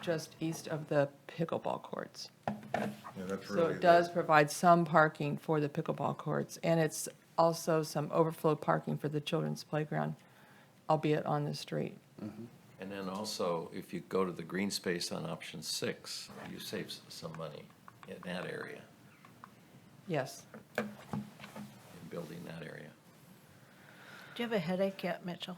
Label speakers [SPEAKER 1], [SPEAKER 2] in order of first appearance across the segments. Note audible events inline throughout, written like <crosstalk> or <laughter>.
[SPEAKER 1] just east of the pickleball courts.
[SPEAKER 2] Yeah, that's
[SPEAKER 1] So
[SPEAKER 2] really.
[SPEAKER 1] it does provide some parking for the pickleball courts, and it's also some overflow parking for the children's playground, albeit on the street.
[SPEAKER 3] And then also, if you go to the green space on option six, you save s- some money in that area,
[SPEAKER 1] Yes.
[SPEAKER 3] in building that area.
[SPEAKER 4] Do you have a headache yet, Mitchell?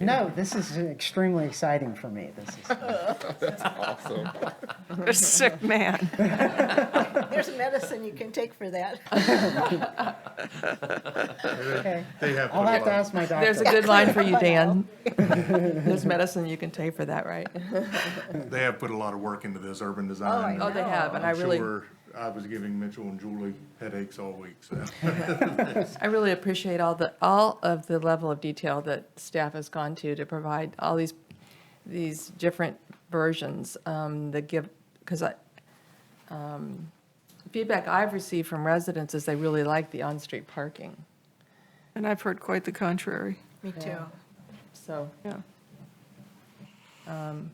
[SPEAKER 5] No, this is extremely exciting for me. This is,
[SPEAKER 6] A <laughs> sick man.
[SPEAKER 4] There's a medicine you can take for that. <laughs>
[SPEAKER 5] okay.
[SPEAKER 2] They have.
[SPEAKER 5] I'll
[SPEAKER 2] put a
[SPEAKER 5] have to
[SPEAKER 2] lot-
[SPEAKER 5] ask my doctor.
[SPEAKER 1] There's a good line for you, Dan. <laughs> There's medicine you can take for that,
[SPEAKER 2] <laughs>
[SPEAKER 1] right?
[SPEAKER 2] They have put a lot of work into this urban design.
[SPEAKER 1] Oh, they have, and I
[SPEAKER 2] I'm
[SPEAKER 1] really,
[SPEAKER 2] sure I was giving Mitchell and Julie headaches all week,
[SPEAKER 1] <laughs>
[SPEAKER 2] so.
[SPEAKER 1] I really appreciate all the, all of the level of detail that staff has gone to to provide all these, these different versions um, that give, because I, um, feedback I've received from residents is they really like the on-street parking,
[SPEAKER 6] And I've heard quite the contrary.
[SPEAKER 4] Me too.
[SPEAKER 1] so.
[SPEAKER 6] Yeah.
[SPEAKER 3] And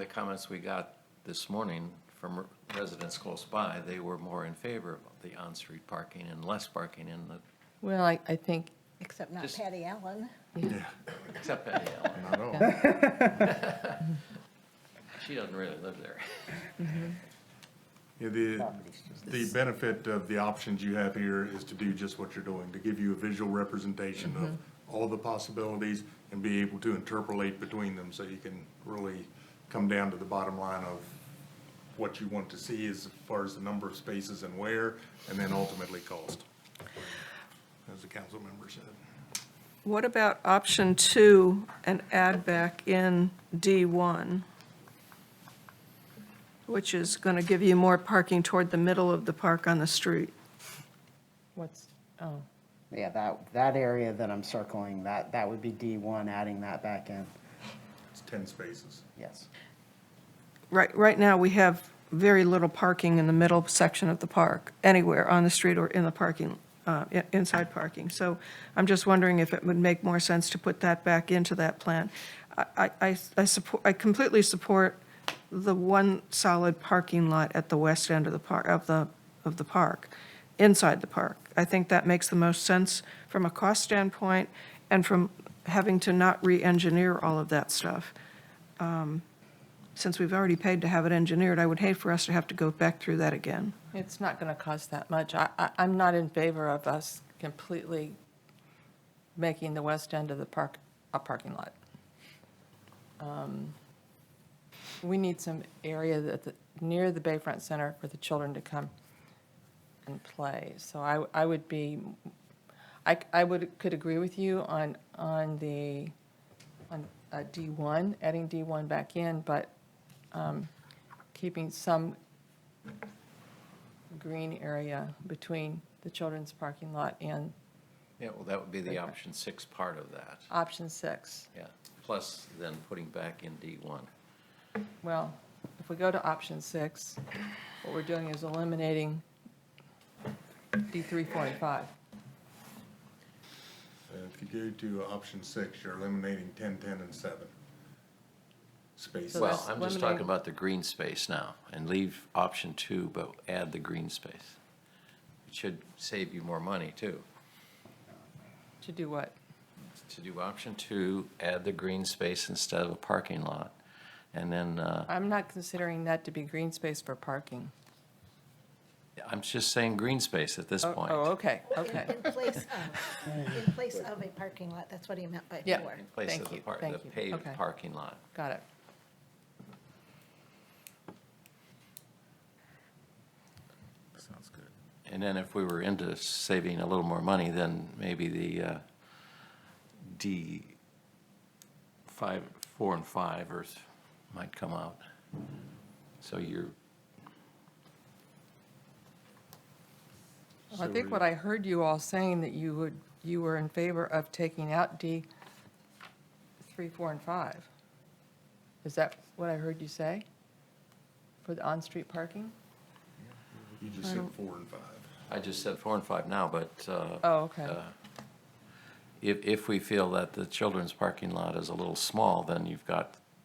[SPEAKER 3] the comments we got this morning from residents close by, they were more in favor of the on-street parking and less parking in the,
[SPEAKER 1] Well, I, I think,
[SPEAKER 4] Except not
[SPEAKER 3] Just-
[SPEAKER 4] Patty Allen.
[SPEAKER 3] except Patty Allen.
[SPEAKER 2] Not all.
[SPEAKER 3] She doesn't really live there. <laughs>
[SPEAKER 2] Yeah, the, the benefit of the options you have here is to do just what you're doing, to give you a visual representation of all the possibilities and be able to interpolate between them, so you can really come down to the bottom line of what you want to see as far as the number of spaces and where, and then ultimately cost, as the council member said.
[SPEAKER 6] What about option two and add back in D1? Which is going to give you more parking toward the middle of the park on the street.
[SPEAKER 1] what's, oh,
[SPEAKER 5] Yeah, that, that area that I'm circling, that, that would be D1, adding that back in.
[SPEAKER 2] It's 10 spaces.
[SPEAKER 5] Yes.
[SPEAKER 6] Right, right now, we have very little parking in the middle section of the park, anywhere on the street or in the parking, uh, i- inside parking. So I'm just wondering if it would make more sense to put that back into that plan. I, I- I, I support, I completely support the one solid parking lot at the west end of the park, of the, of the park, inside the park. I think that makes the most sense from a cost standpoint and from having to not re-engineer all of that stuff since we've already paid to have it engineered, I would hate for us to have to go back through that again.
[SPEAKER 1] it's not going to cost that much. I, I, I'm not in favor of us completely making the west end of the park a parking lot. Um, We need some area that, the- near the Bayfront Center for the children to come and play. So I, I would be, I, I would, could agree with you on, on the, on uh, D1, adding D1 back in, but um, keeping some green area between the children's parking lot and
[SPEAKER 3] Yeah, well, that would be the option six part of that,
[SPEAKER 1] option six.
[SPEAKER 3] yeah. Plus then putting back in D1.
[SPEAKER 1] Well, if we go to option six, what we're doing is eliminating D three forty-five.
[SPEAKER 2] And If you go to option six, you're eliminating 10, 10, and seven spaces.
[SPEAKER 1] So
[SPEAKER 3] Well,
[SPEAKER 1] that's
[SPEAKER 3] I'm just
[SPEAKER 1] lemonade.
[SPEAKER 3] talking about the green space now, and leave option two, but add the green space. It should save you more money, too.
[SPEAKER 1] To do what?
[SPEAKER 3] To do option two, add the green space instead of a parking lot, and then, uh,
[SPEAKER 1] I'm not considering that to be green space for parking.
[SPEAKER 3] I'm just saying green space at this
[SPEAKER 1] Oh,
[SPEAKER 3] point.
[SPEAKER 1] Oh, okay,
[SPEAKER 4] In-
[SPEAKER 1] okay.
[SPEAKER 4] In place of, in place of a parking lot. That's what he meant by
[SPEAKER 1] Yeah.
[SPEAKER 4] for.
[SPEAKER 3] In place of
[SPEAKER 1] Thank
[SPEAKER 3] the
[SPEAKER 1] you,
[SPEAKER 3] par- the
[SPEAKER 1] thank you.
[SPEAKER 3] paved
[SPEAKER 1] Okay.
[SPEAKER 3] parking lot.
[SPEAKER 1] Got it.
[SPEAKER 2] Sounds good.
[SPEAKER 3] And then if we were into saving a little more money, then maybe the uh, D five, four and five or s- might come out. So you're,
[SPEAKER 1] Well, I think what I heard you all saying that you would, you were in favor of taking out D three, four, and five. Is that what I heard you say? For the on-street parking?
[SPEAKER 2] You just said four and five.
[SPEAKER 3] I just said four and five now, but. uh,
[SPEAKER 1] Oh, okay.
[SPEAKER 3] uh, If, if we feel that the children's parking lot is a little small, then you've got